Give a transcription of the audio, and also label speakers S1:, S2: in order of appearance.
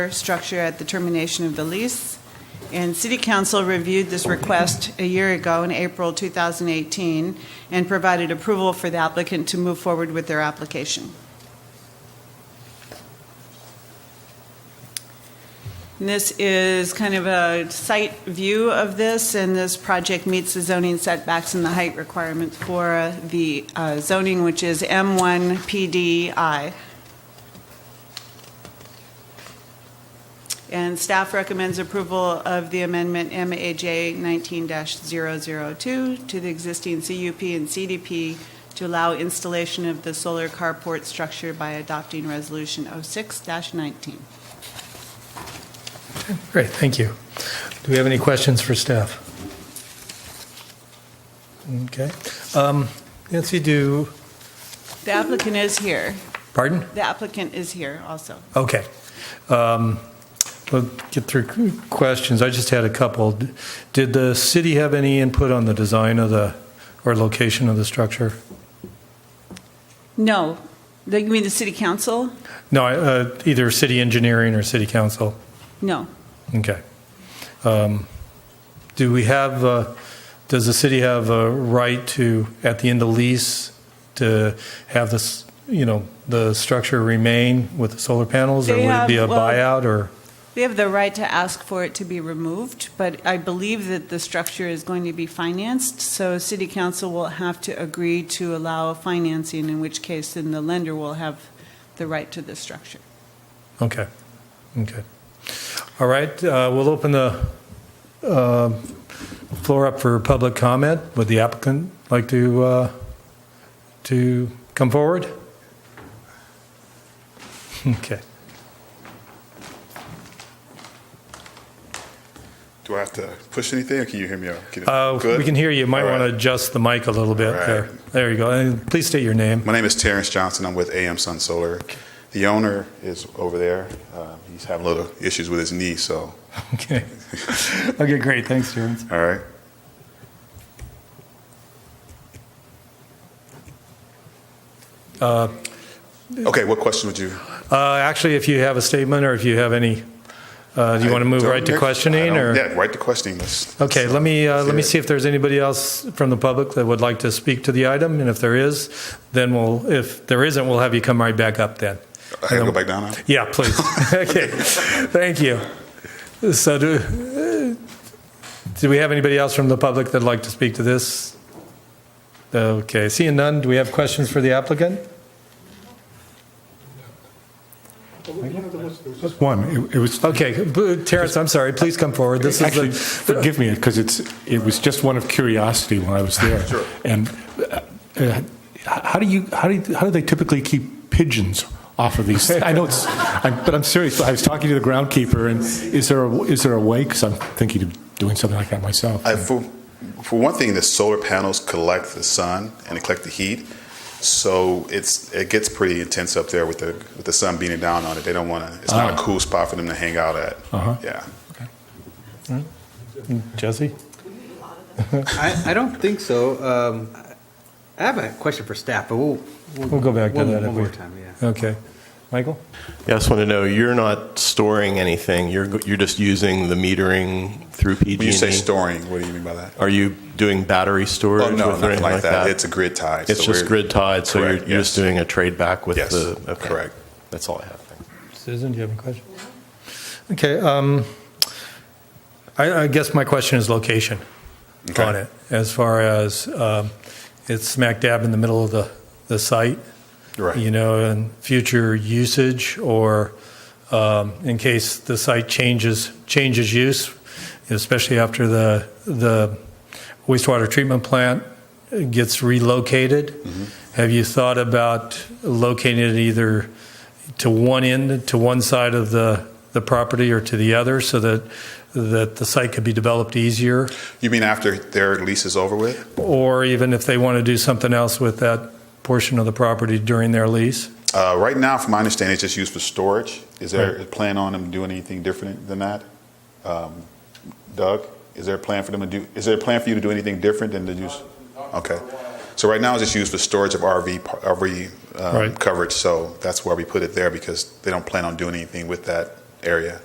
S1: structure at the termination of the lease. And City Council reviewed this request a year ago in April 2018 and provided approval for the applicant to move forward with their application. And This is kind of a site view of this, and this project meets the zoning setbacks and the height requirements for uh, the uh, zoning, which is M1 PDI. And staff recommends approval of the amendment MAJ 19-002 to the existing CUP and CDP to allow installation of the solar carport structure by adopting Resolution 06-19.
S2: Great, thank you. Do we have any questions for staff? Okay. Um, Nancy, do,
S1: The applicant is here.
S2: pardon?
S1: The applicant is here also.
S2: Okay. Um, We'll get through questions. I just had a couple. Did the city have any input on the design of the, or location of the structure?
S1: No, The- you mean the city council?
S2: No, I- uh, either city engineering or city council?
S1: No.
S2: Okay. Um, Do we have, uh, does the city have a right to, at the end of lease, to have this, you know, the structure remain with the solar panels? Or
S1: They
S2: would it be a
S1: have, well-
S2: buyout or?
S1: They have the right to ask for it to be removed, but I believe that the structure is going to be financed, so city council will have to agree to allow financing, in which case then the lender will have the right to the structure.
S2: Okay, okay. All right, uh, we'll open the uh, floor up for public comment. Would the applicant like to, uh, to come forward? Okay.
S3: Do I have to push anything, or can you hear me? Can
S2: Uh,
S3: Good?
S2: We can hear you. You might
S3: All right.
S2: want to adjust the mic a little bit
S3: All right.
S2: there. There you go. And please state your name.
S3: My name is Terrence Johnson. I'm with AM Sun Solar. The owner is over there. Uh, he's having little issues with his knee, so
S2: Okay. Okay, great. Thanks, Terrence.
S3: all right. okay, what question would you?
S2: Uh, Actually, if you have a statement or if you have any, uh, do you want to move
S3: Don't-
S2: right to questioning
S3: I don't-
S2: or?
S3: Yeah, right to questioning. Let's,
S2: Okay, let me, uh, let
S3: let's hear
S2: me
S3: it.
S2: see if there's anybody else from the public that would like to speak to the item. And if there is, then we'll, if there isn't, we'll have you come right back up then.
S3: I gotta go back down. now?
S2: Yeah, please. Okay, thank you. So do, uh, do we have anybody else from the public that'd like to speak to this? Okay, seeing none, do we have questions for the applicant?
S4: Just one. It- It was,
S2: Okay, b- Terrence, I'm sorry, please come forward. This is
S4: actually,
S2: the,
S4: forgive me, because it's, it was just one of curiosity when I was there. Sure. And uh, uh, how do you, how do, you- how do they typically keep pigeons off of these? I know it's, I'm- but I'm serious, I was talking to the groundkeeper, and is there, a- is there a way? Because I'm thinking of doing something like that myself.
S3: I, for, for one thing, the solar panels collect the sun and they collect the heat, so it's it gets pretty intense up there with the with the sun beating down on it. They don't want to. It's not a
S4: Ah.
S3: cool spot for them to hang out at.
S4: Uh-huh.
S3: Yeah.
S2: Jesse?
S5: I, I don't think so. Um, I have a question for staff, but we'll, we'll,
S2: We'll go back to
S5: one,
S2: that. if
S5: one
S2: we-
S5: more time. Yeah.
S2: Okay. Michael?
S6: Yeah, I just want to know, you're not storing anything, you're, you're just using the metering through PG&E?
S3: When you say storing, what do you mean by that?
S6: E? Are you doing battery storage?
S3: Oh no,
S6: with or
S3: nothing
S6: anything
S3: like that. It's a grid tie.
S6: It's
S3: so
S6: just
S3: we're-
S6: grid tied, so you're,
S3: Correct,
S6: you're just
S3: yes.
S6: doing a trade back with
S3: Yes,
S6: the? okay.
S3: correct.
S6: That's all I have, thanks.
S2: Susan, do you have any questions? Okay, um, I, I guess my question is location
S3: Okay.
S2: on it. As far as, um, it's smack dab in the middle of the, the site.
S3: Right.
S2: You know, and future usage or, um, in case the site changes, changes use, especially after the, the wastewater treatment plant gets relocated. Have you thought about locating it either to one end, to one side of the, the property or to the other so that, that the site could be developed easier?
S3: You mean after their lease is over with?
S2: Or even if they want to do something else with that portion of the property during their lease?
S3: Uh, right now, from my understanding, it's just used for storage. Is there
S2: Right.
S3: a plan on them doing anything different than that? Um, Doug, is there a plan for them to do? Is there a plan for you to do anything different than to use? Okay. So right now, it's just used for storage of RV par- RV um,
S2: Right.
S3: coverage. So that's why we put it there because they don't plan on doing anything with that area.